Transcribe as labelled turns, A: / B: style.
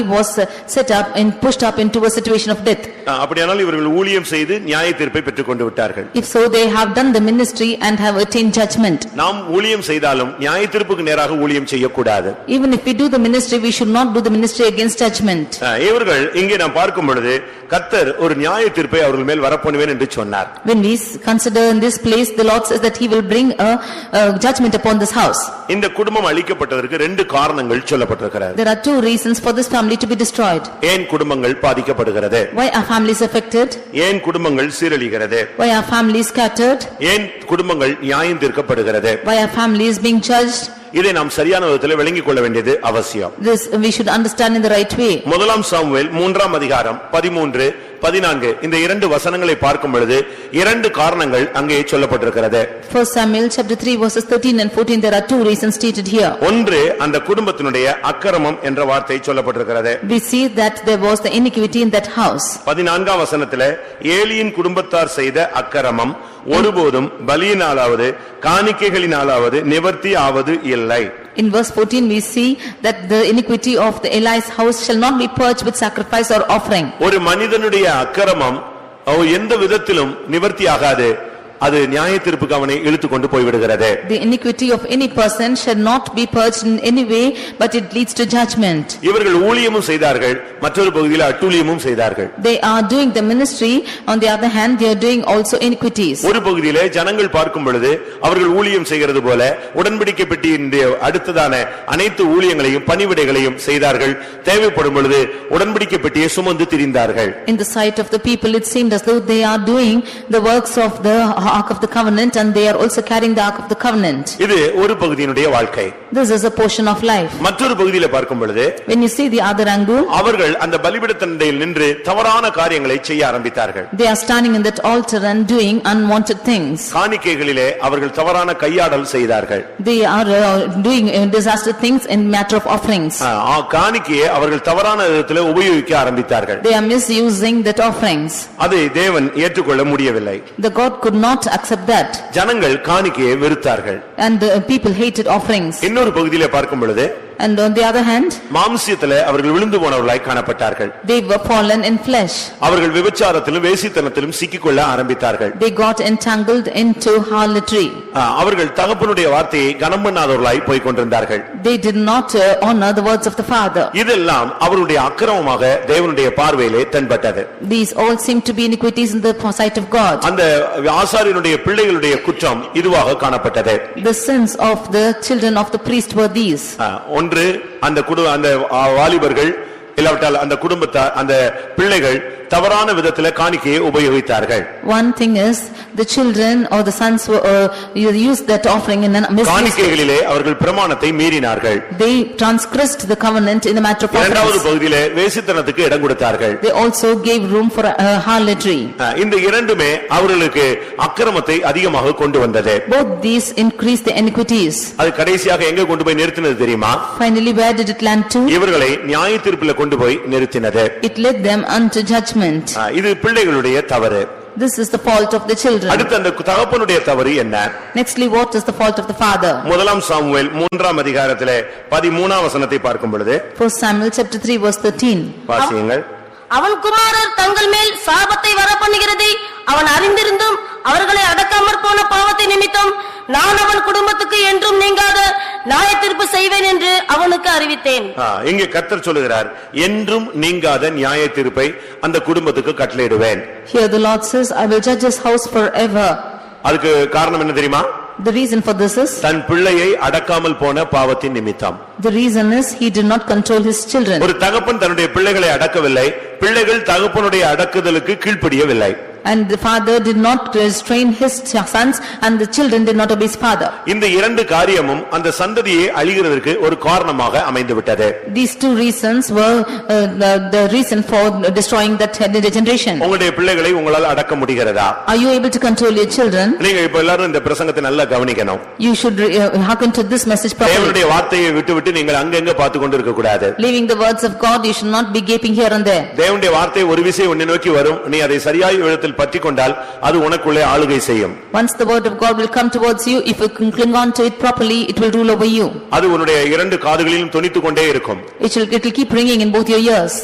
A: was uh, set up and pushed up into a situation of death.
B: ஆ, அப்படியானால் இவர்கள் ஊழியம் செய்து நியாய தீர்ப்பை பெற்றுக்கொண்டு விட்டார்கள்
A: If so, they have done the ministry and have attained judgment.
B: நாம் ஊழியம் செய்தாலும் நியாய தீர்ப்புக்கு நேராக ஊழியம் செய்யக்கூடாது
A: Even if we do the ministry, we should not do the ministry against judgment.
B: ஆ, இவர்கள் இங்கே நாம் பார்க்கும் பொழுது கத்தர் ஒரு நியாய தீர்ப்பை அவர்கள் மேல் வரப்பண்ணுவேன் என்று சொன்னார்
A: When we s- consider in this place, the Lord says that he will bring a a judgment upon this house.
B: இந்த குடும்பம் அழிக்கப்பட்டதற்கு ரெண்டு காரணங்கள் சொல்லப்பட்டிருக்கிறது
A: There are two reasons for this family to be destroyed.
B: ஏன் குடும்பங்கள் பாதிக்கப்படுகிறது
A: Why are families affected?
B: ஏன் குடும்பங்கள் சீரழிகிறது
A: Why are families scattered?
B: ஏன் குடும்பங்கள் நியாயம் தீர்க்கப்படுகிறது
A: Why are families being judged?
B: இதை நாம் சரியான விதத்தில் விளங்கிக் கொள்ள வேண்டியது அவசியம்
A: This we should understand in the right way.
B: முதலாம் சாமுவேல் மூன்றாம் அதிகாரம் பதிமூன்று பதினான்கு இந்த இரண்டு வசனங்களை பார்க்கும் பொழுது இரண்டு காரணங்கள் அங்கே சொல்லப்பட்டிருக்கிறது
A: First Samuel chapter 3 verses 13 and 14, there are two reasons stated here.
B: ஒன்று அந்த குடும்பத்தினுடைய அக்கிரமம் என்ற வார்த்தை சொல்லப்பட்டிருக்கிறது
A: We see that there was the iniquity in that house.
B: பதினான்காம் வசனத்துல ஏலியின் குடும்பத்தார் செய்த அக்கிரமம் ஒருபோதும் பலியினாலாவது காணிக்கைகளினாலாவது நிவர்த்தி ஆவது இல்லை
A: In verse 14, we see that the iniquity of the Eli's house shall not be purged with sacrifice or offering.
B: ஒரு மனிதனுடைய அக்கிரமம் அவ- எந்த விதத்திலும் நிவர்த்தி ஆகாது அது நியாய தீர்ப்புக்கு அவனை இழுத்துக் கொண்டு போய்விடுகிறது
A: The iniquity of any person shall not be purged in any way, but it leads to judgment.
B: இவர்கள் ஊழியமும் செய்தார்கள் மற்றொரு பகுதியில் அட்டூழியமும் செய்தார்கள்
A: They are doing the ministry, on the other hand, they are doing also iniquities.
B: ஒரு பகுதியிலே ஜனங்கள் பார்க்கும் பொழுது அவர்கள் ஊழியம் செய்கிறது போல உடன்படிக்கை பெட்டியினுடைய அடுத்ததான அனைத்து ஊழியங்களையும் பணிவிடைகளையும் செய்தார்கள் தேவைப்படும் பொழுது உடன்படிக்கை பெட்டியை சுமந்து திரிந்தார்கள்
A: In the sight of the people, it seemed as though they are doing the works of the Ark of the Covenant and they are also carrying the Ark of the Covenant.
B: இது ஒரு பகுதியினுடைய வாழ்க்கை
A: This is a portion of life.
B: மற்றொரு பகுதியில பார்க்கும் பொழுது
A: When you see the other angle,
B: அவர்கள் அந்த பலிபிடத்தண்டையில் நின்று தவறான காரியங்களை செய்ய ஆரம்பித்தார்கள்
A: they are standing in that altar and doing unwanted things.
B: காணிக்கைகளிலே அவர்கள் தவறான கையாடல் செய்தார்கள்
A: They are uh, doing uh, disaster things in matter of offerings.
B: ஆ, காணிக்கையை அவர்கள் தவறான விதத்திலே உபயோகிக்க ஆரம்பித்தார்கள்
A: They are misusing that offerings.
B: அதை தேவன் ஏற்றுக்கொள்ள முடியவில்லை
A: The God could not accept that
B: ஜனங்கள் காணிக்கையை வெறுத்தார்கள்
A: and the people hated offerings.
B: இன்னொரு பகுதியிலே பார்க்கும் பொழுது
A: And on the other hand,
B: மாம்சியத்திலே அவர்கள் விழுந்து போனவர்களாய் காணப்பட்டார்கள்
A: they were fallen in flesh.
B: அவர்கள் விபச்சாரத்திலும் வேசித்தனத்திலும் சிக்கிக்கொள்ள ஆரம்பித்தார்கள்
A: They got entangled into harlotry.
B: ஆ, அவர்கள் தகப்பனுடைய வார்த்தையை கனம் பண்ணாதவர்களாய் போய்க் கொண்டிருந்தார்கள்
A: They did not uh, honor the words of the father.
B: இதெல்லாம் அவருடைய அக்கிரமமாக தேவனுடைய பார்வையிலே தென்பட்டது
A: These all seem to be iniquities in the sight of God.
B: அந்த ஆசாரியனுடைய பிள்ளைகளுடைய குற்றம் இதுவாக காணப்பட்டது
A: The sins of the children of the priest were these.
B: ஆ, ஒன்று அந்த குடு அந்த ஆ, வாலிபர்கள் இல்லாவிட்டால் அந்த குடும்பத்தார் அந்த பிள்ளைகள் தவறான விதத்திலே காணிக்கையை உபயோகித்தார்கள்
A: One thing is, the children or the sons were, uh, you used that offering in a misused.
B: காணிக்கைகளிலே அவர்கள் பிரமாணத்தை மீறினார்கள்
A: They transgressed the covenant in the matter of
B: இரண்டாவது
A: offerings.
B: பகுதியிலே வேசித்தனத்துக்கு இடம் கொடுத்தார்கள்
A: They also gave room for uh, harlotry.
B: அஹ், இந்த இரண்டுமே அவர்களுக்கு அக்கிரமத்தை அதிகமாக கொண்டு வந்தது
A: Both these increased the iniquities.
B: அது கடைசியாக எங்க கொண்டு போய் நிறுத்தினது தெரியுமா
A: Finally, where did it land to?
B: இவர்களை நியாய தீர்ப்பில் கொண்டு போய் நிறுத்தினது
A: It led them unto judgment.
B: அஹ், இது பிள்ளைகளுடைய தவறு
A: This is the fault of the children.
B: அடுத்து அந்த தகப்பனுடைய தவறு என்ன
A: Nextly, what is the fault of the father?
B: முதலாம் சாமுவேல் மூன்றாம் அதிகாரத்திலே பதிமூணாம் வசனத்தை பார்க்கும் பொழுது
A: First Samuel chapter 3 verse 13.
B: வாசியுங்கள்
C: அவன் குமாரர் தங்கள் மேல் சாபத்தை வரப்பண்ணுகிறது அவன் அறிந்திருந்தும் அவர்களை அடக்காமற் போன பாவத்தை நிமித்தம் நான் அவன் குடும்பத்துக்கு என்றும் நீங்காத நியாயத்தீர்ப்பு செய்வேன் என்று அவனுக்கு அறிவித்தேன்
B: அஹ், இங்கே கர்த்தர் சொல்லுகிறார் என்றும் நீங்காத நியாய தீர்ப்பை அந்த குடும்பத்துக்கு கட்டளையிடுவேன்
A: Here the Lord says, "I will judge his house forever."
B: அதுக்கு காரணம் என்ன தெரியுமா
A: The reason for this is,
B: தன் பிள்ளையை அடக்காமல் போன பாவத்தின் நிமித்தம்
A: the reason is he did not control his children.
B: ஒரு தகப்பன் தன்னுடைய பிள்ளைகளை அடக்கவில்லை பிள்ளைகள் தகப்பனுடைய அடக்குதலுக்கு கீழ்ப்படியவில்லை
A: And the father did not restrain his ch- sons and the children did not obey his father.
B: இந்த இரண்டு காரியமும் அந்த சந்ததியை அழிகிறதற்கு ஒரு காரணமாக அமைந்து விட்டது
A: These two reasons were uh, the the reason for destroying that generation.
B: உங்களுடைய பிள்ளைகளை உங்களால் அடக்க முடிகிறதா
A: Are you able to control your children?
B: நீங்க இப்ப எல்லாரும் இந்த பிரசங்கத்தை நல்லா கவனிக்கணும்
A: You should re- uh, hearken to this message properly.
B: தேவனுடைய வார்த்தையை விட்டுவிட்டு நீங்கள் அங்கங்க பார்த்து கொண்டு இருக்க கூடாது
A: Leaving the words of God, you should not be gaping here and there.
B: தேவனுடைய வார்த்தை ஒரு விசை உன்னை நோக்கி வரும் நீ அதை சரியாய் விதத்தில் உள்ளத்தில் பற்றிக்கொண்டால் அது உனக்குள்ளே ஆளுகை செய்யும்
A: Once the word of God will come towards you, if you can cling on to it properly, it will rule over you.
B: அது உன்னுடைய இரண்டு காதுகளிலும் தொனித்துக் கொண்டே இருக்கும்
A: It will, it will keep ringing in both your ears.